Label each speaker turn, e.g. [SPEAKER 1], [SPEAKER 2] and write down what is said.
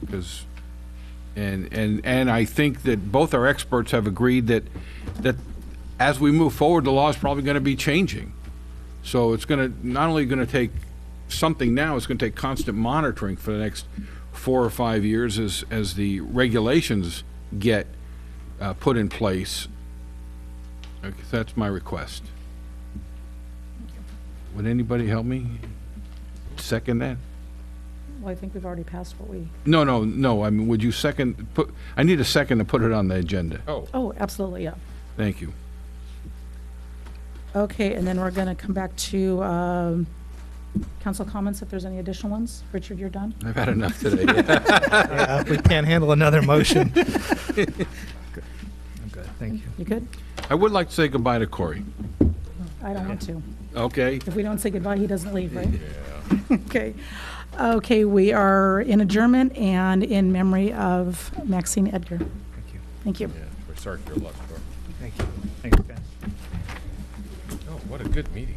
[SPEAKER 1] because, and, and, and I think that both our experts have agreed that, that as we move forward, the law is probably going to be changing. So it's going to, not only going to take something now, it's going to take constant monitoring for the next four or five years as, as the regulations get uh, put in place. Okay, That's my request. Would anybody help me second that?
[SPEAKER 2] Well, I think we've already passed what we,
[SPEAKER 1] No, no, no, I mean, would you second, put, I need a second to put it on the agenda. Oh.
[SPEAKER 2] oh, absolutely, yeah.
[SPEAKER 1] Thank you.
[SPEAKER 2] Okay, and then we're going to come back to um, council comments, if there's any additional ones. Richard, you're done?
[SPEAKER 1] I've had enough today.
[SPEAKER 3] Yeah, we can't handle another motion. Good. I'm good, thank you.
[SPEAKER 2] You good?
[SPEAKER 1] I would like to say goodbye to Corey,
[SPEAKER 2] I don't want to.
[SPEAKER 1] okay?
[SPEAKER 2] If we don't say goodbye, he doesn't leave, right? Okay. Okay, we are in adjournment and in memory of Maxine Edgar.
[SPEAKER 3] Thank you.
[SPEAKER 2] Thank you.
[SPEAKER 4] We're sorry for your luck, Thor.
[SPEAKER 3] Thank you. Thanks, guys.
[SPEAKER 4] Oh, what a good meeting.